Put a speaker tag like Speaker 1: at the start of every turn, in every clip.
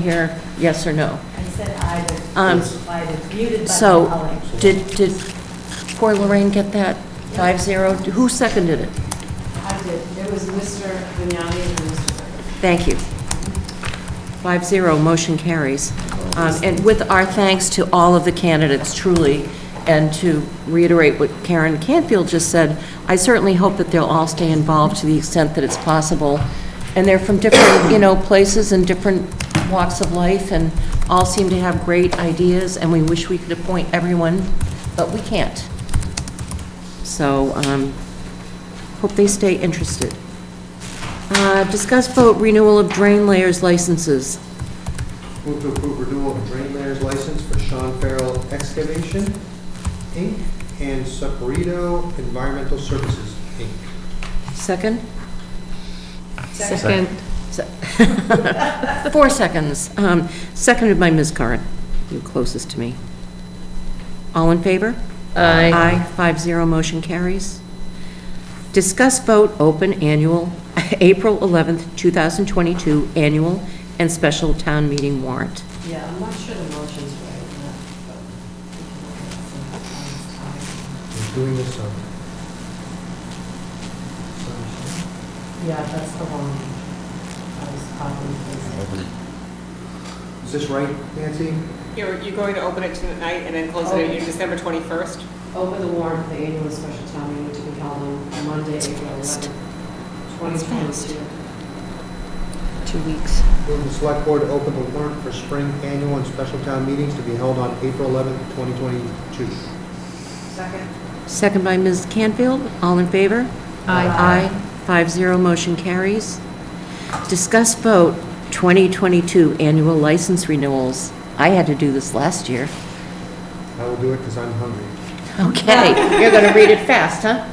Speaker 1: here, yes or no?
Speaker 2: I said I
Speaker 1: Um,
Speaker 2: was, I was muted by my
Speaker 1: So,
Speaker 2: colleague.
Speaker 1: did, did poor Lorraine get that? Five zero? Who seconded it?
Speaker 2: I did, there was Mr. Vignani and Mr. Burke.
Speaker 1: Thank you. Five zero, motion carries. Um, And with our thanks to all of the candidates, truly, and to reiterate what Karen Canfield just said, I certainly hope that they'll all stay involved to the extent that it's possible. And they're from different, you know, places and different walks of life, and all seem to have great ideas, and we wish we could appoint everyone, but we can't. So, um, hope they stay interested. Uh, Discuss vote renewal of drain layers licenses.
Speaker 3: Move to approve renewal of drain layers license for Sean Farrell Excavation, Inc., and Saporito Environmental Services, Inc.
Speaker 1: Second?
Speaker 4: Second.
Speaker 1: Se- Four seconds. Um, Seconded by Ms. Curran, you closest to me. All in favor?
Speaker 4: Aye.
Speaker 1: Aye, five zero, motion carries. Discuss vote open annual, April 11th, 2022 annual and special town meeting warrant.
Speaker 2: Yeah, I'm not sure the motion's right, or not, but we can look at it sometime.
Speaker 3: He's doing this um, on.
Speaker 2: Yeah, that's the one I was talking
Speaker 3: Is this right, Nancy?
Speaker 5: You're, you're going to open it tonight and then close it on December 21st?
Speaker 2: about. Open the warrant for the annual and special town meeting to be held on Monday, April 11th, 2022.
Speaker 1: Two weeks.
Speaker 3: Move the select board to open the warrant for spring annual and special town meetings to be held on April 11th, 2022.
Speaker 2: Second.
Speaker 1: Second by Ms. Canfield. All in favor? Aye. Aye. Five zero, motion carries. Discuss vote 2022 annual license renewals. I had to do this last year.
Speaker 3: I will do it because I'm hungry.
Speaker 1: Okay, you're going to read it fast, huh?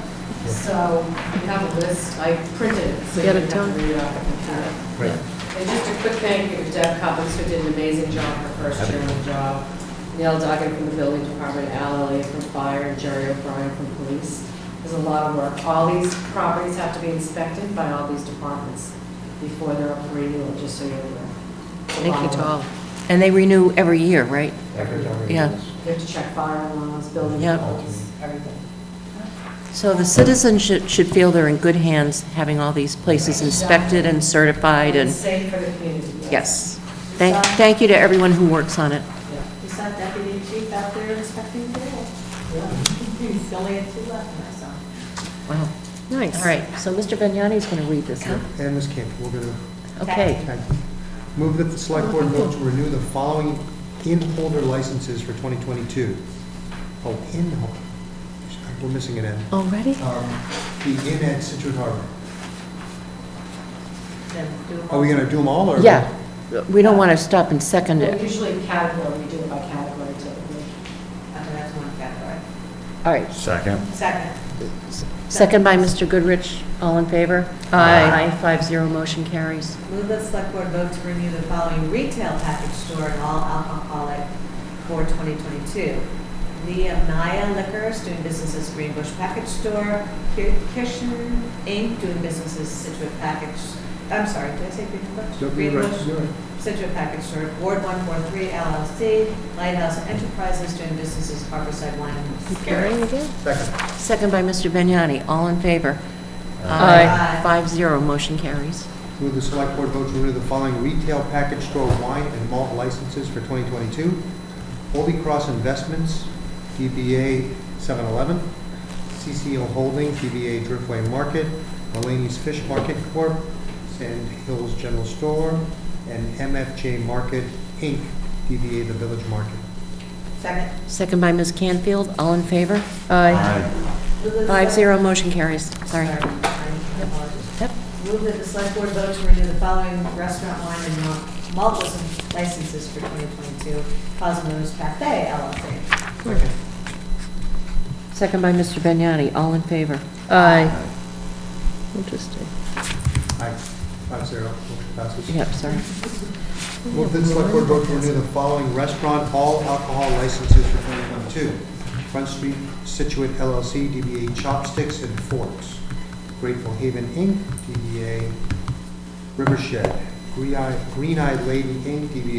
Speaker 2: So we have a list, I printed it, so you
Speaker 1: Get
Speaker 2: can
Speaker 1: it
Speaker 2: have to read it off the computer.
Speaker 3: Right.
Speaker 2: And just a quick thank you to Deb Coppins, who did an amazing job her first year on the job, Neil Duggan from the building department, Al Elliott from fire, and Jerry O'Brien from police. There's a lot of work. All these properties have to be inspected by all these departments before they're up for renewal, just so you're aware. It's a lot of work.
Speaker 1: And they renew every year, right?
Speaker 3: Every time.
Speaker 1: Yeah.
Speaker 2: They have to check fire alarms, building
Speaker 1: Yep.
Speaker 2: codes, everything.
Speaker 1: So the citizens should should feel they're in good hands, having all these places inspected and certified and,
Speaker 2: Safe for the community.
Speaker 1: yes. Thank thank you to everyone who works on it.
Speaker 2: Yeah.
Speaker 6: You saw Deputy Chief out there inspecting the wall. He's only had two left, and I saw. him.
Speaker 1: Wow.
Speaker 4: Nice.
Speaker 1: All right, so Mr. Vignani's going to read this, huh?
Speaker 3: And Ms. Camp, we're going to
Speaker 1: Okay.
Speaker 3: Okay. Move that the select board vote to renew the following in-holder licenses for 2022. Oh, in-holder, we're missing an N.
Speaker 1: Already?
Speaker 3: Um, The inn at Situate Harbor.
Speaker 6: Then do
Speaker 3: Are we going to do them all, or?
Speaker 1: Yeah, we don't want to stop and second
Speaker 2: Well,
Speaker 1: it.
Speaker 2: Usually category, we do it by category typically.
Speaker 6: Okay, that's one category.
Speaker 1: All right,
Speaker 7: Second.
Speaker 6: Second.
Speaker 1: second by Mr. Goodrich, all in favor?
Speaker 4: Aye.
Speaker 1: Aye, five zero, motion carries.
Speaker 6: Move that select board vote to renew the following retail package store and all alcoholic for 2022. Nehemiah Liquors doing business as Greenbush Package Store, Kir- Kirschen Inc. doing business as Situate Package, I'm sorry, did I say Greenbush?
Speaker 3: Don't be right, you're right.
Speaker 6: Situate Package Store, Board 143 LLC, Lighthouse Enterprises doing business as Harborside Wine and Spirits.
Speaker 4: again?
Speaker 3: Second.
Speaker 1: Second by Mr. Vignani, all in favor?
Speaker 4: Aye.
Speaker 1: Five zero, motion carries.
Speaker 3: Move the select board vote to renew the following retail package store wine and malt licenses for 2022. Holy Cross Investments, DBA 7-Eleven, CCO Holdings, DBA Driftway Market, Mulaney's Fish Market Corp., Sand Hills General Store, and MFJ Market, Inc., DBA The Village Market.
Speaker 6: Second.
Speaker 1: Second by Ms. Canfield, all in favor?
Speaker 6: Move that the
Speaker 1: Five
Speaker 6: select-
Speaker 1: zero, motion carries, sorry.
Speaker 6: Sorry, I apologize.
Speaker 1: Yep.
Speaker 6: Move that the select board vote to renew the following restaurant wine and malt- malt lic- licenses for 2022. Cosmos Cafe LLC.
Speaker 3: Second.
Speaker 1: Second by Mr. Vignani, all in favor?
Speaker 4: Aye. Interesting.
Speaker 3: Aye. Five zero. Motion passes.
Speaker 1: Yep, sorry.
Speaker 3: Move that the select board vote to renew the following restaurant all alcohol licenses for 2022. Front Street Situate LLC, DBA Chopsticks and Forks. Grateful Haven Inc., DBA Rivershed. Green Eye Green Eyed Lady Inc., DBA